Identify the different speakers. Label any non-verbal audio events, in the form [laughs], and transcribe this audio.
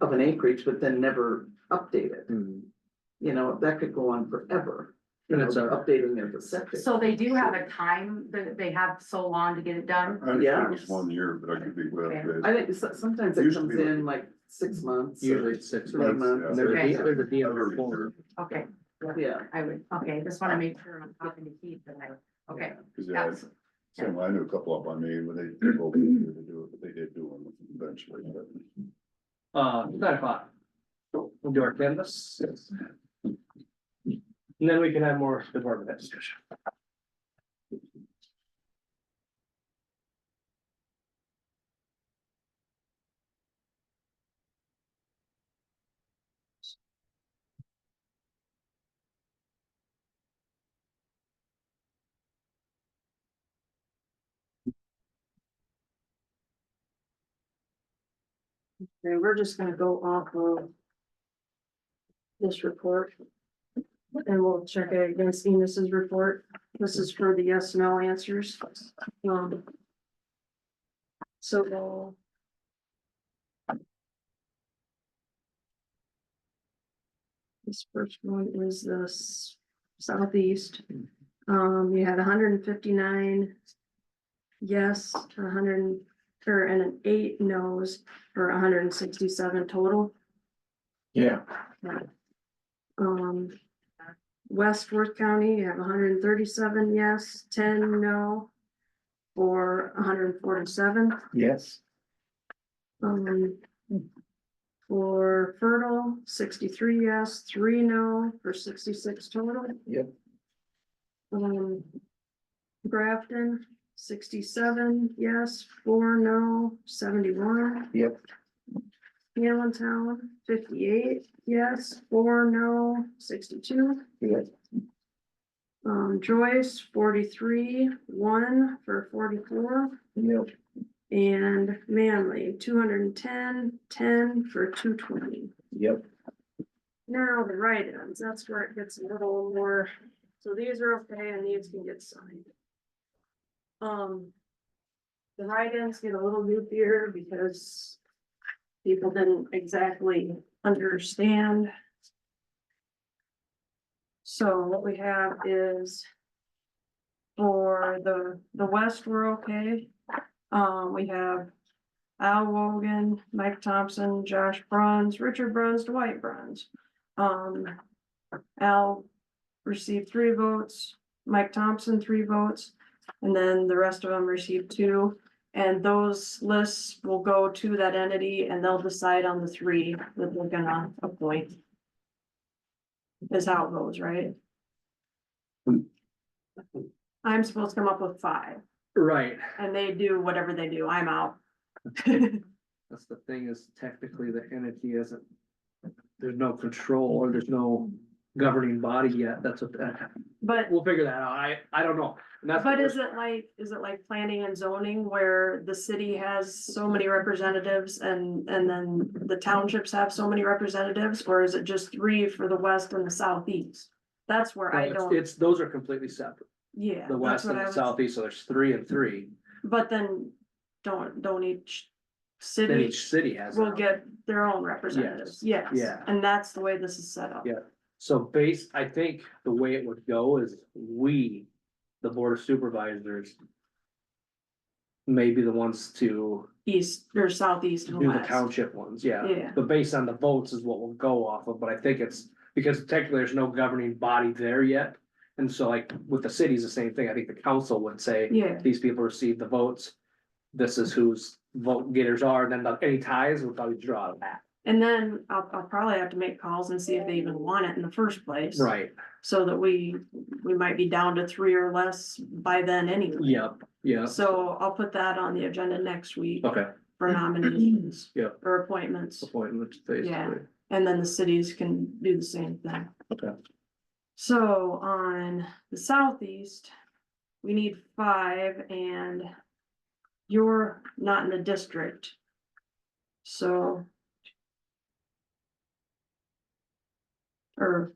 Speaker 1: of an acreage, but then never update it.
Speaker 2: Hmm.
Speaker 1: You know, that could go on forever, you
Speaker 2: And
Speaker 1: know,
Speaker 2: it's a-
Speaker 1: updating their septic.
Speaker 3: So they do have a time, that they have so long to get it done.
Speaker 4: I understand it
Speaker 1: Yes.
Speaker 4: was one year, but I could be well.
Speaker 1: I think so- sometimes it
Speaker 4: Used to
Speaker 1: comes
Speaker 4: be like-
Speaker 1: in like six months. or-
Speaker 2: Usually it's six
Speaker 1: Three
Speaker 2: months.
Speaker 1: months.
Speaker 2: And There's a
Speaker 3: Okay.
Speaker 2: deal, there's a deal
Speaker 4: Under
Speaker 2: with four.
Speaker 4: reserve,
Speaker 3: Okay,
Speaker 1: Yeah.
Speaker 3: I would, okay, just wanna make sure I'm talking to Keith, but I, okay,
Speaker 4: Cause yeah,
Speaker 3: that's,
Speaker 4: same, I knew a couple up on me when they took over here to do it, but they did do them eventually, but.
Speaker 2: Uh, nine o'clock. We'll do our canvas. And then we can have more department head discussion.
Speaker 5: Okay, we're just gonna go off of. This report. And we'll check it against Enos's report. This is for the yes, no answers. Um. So. uh, This first one is the s- southeast. Um, you had hundred and fifty-nine. Yes, hundred and, or and an eight no's for hundred and sixty-seven total.
Speaker 2: Yeah.
Speaker 5: Um, West Worth County, you have hundred and thirty-seven yes, ten no, for hundred and forty-seven.
Speaker 2: Yes.
Speaker 5: Um, for Fertile, sixty-three yes, three no, for sixty-six total.
Speaker 2: Yep.
Speaker 5: Um, Grafton, sixty-seven yes, four no, seventy-one.
Speaker 2: Yep.
Speaker 5: Allentown, fifty-eight yes, four no, sixty-two.
Speaker 2: Yes.
Speaker 5: Um, Joyce, forty-three, one for forty-four.
Speaker 2: Yep.
Speaker 5: And Manly, 210, 10 for two twenty.
Speaker 2: Yep.
Speaker 5: Now the write-ins, that's where it gets a little more, so these are okay and these can get signed. Um. The write-ins get a little goofier because. People didn't exactly understand. So what we have is. For the, the west, we're okay. Um, we have. Al Wogan, Mike Thompson, Josh Bruns, Richard Bruns, Dwight Bruns. Um, Al received three votes, Mike Thompson, three votes, and then the rest of them received two. And those lists will go to that entity and they'll decide on the three that they're gonna appoint. Is how it goes, right? I'm supposed to come up with five
Speaker 2: Right.
Speaker 5: and they do whatever they do. I'm out. [laughs]
Speaker 2: That's the thing is technically the entity isn't. There's no control or there's no governing body yet. That's what, that-
Speaker 5: But
Speaker 2: we'll figure that out. I, I don't know. And that's.
Speaker 5: But is it like, is it like planning and zoning where the city has so many representatives and, and then the townships have so many representatives? Or is it just three for the west and the southeast? That's where I
Speaker 2: It's,
Speaker 5: don't,
Speaker 2: it's, those are completely separate.
Speaker 5: yeah.
Speaker 2: The
Speaker 5: that's
Speaker 2: west
Speaker 5: what
Speaker 2: and
Speaker 5: I
Speaker 2: the
Speaker 5: was-
Speaker 2: southeast, so there's three and three.
Speaker 5: But then don't, don't each
Speaker 2: Then
Speaker 5: city
Speaker 2: each city has. their
Speaker 5: will
Speaker 2: own.
Speaker 5: get their own representatives, yes.
Speaker 2: yeah.
Speaker 5: And that's the way this is set up.
Speaker 2: Yeah. So base, I think the way it would go is we, the board of supervisors. May be the ones to
Speaker 5: East, or southeast and
Speaker 2: do the
Speaker 5: west.
Speaker 2: township ones, yeah,
Speaker 5: Yeah,
Speaker 2: but based on the votes is what we'll go off of, but I think it's, because technically there's no governing body there yet. And so like with the cities, the same thing, I think the council would say,
Speaker 5: yeah,
Speaker 2: these people received the votes. This is whose vote getters are, then the- any ties will probably draw that.
Speaker 5: and then I'll, I'll probably have to make calls and see if they even want it in the first place.
Speaker 2: Right,
Speaker 5: So that we, we might be down to three or less by then anyway.
Speaker 2: yep, yep,
Speaker 5: So I'll put that on the agenda next week
Speaker 2: okay, [clears throat]
Speaker 5: for nominations.
Speaker 2: Yep.
Speaker 5: Or appointments,
Speaker 2: appointment basically.
Speaker 5: and then the cities can do the same thing.
Speaker 2: Okay.
Speaker 5: So on the southeast, we need five and you're not in the district. So. Or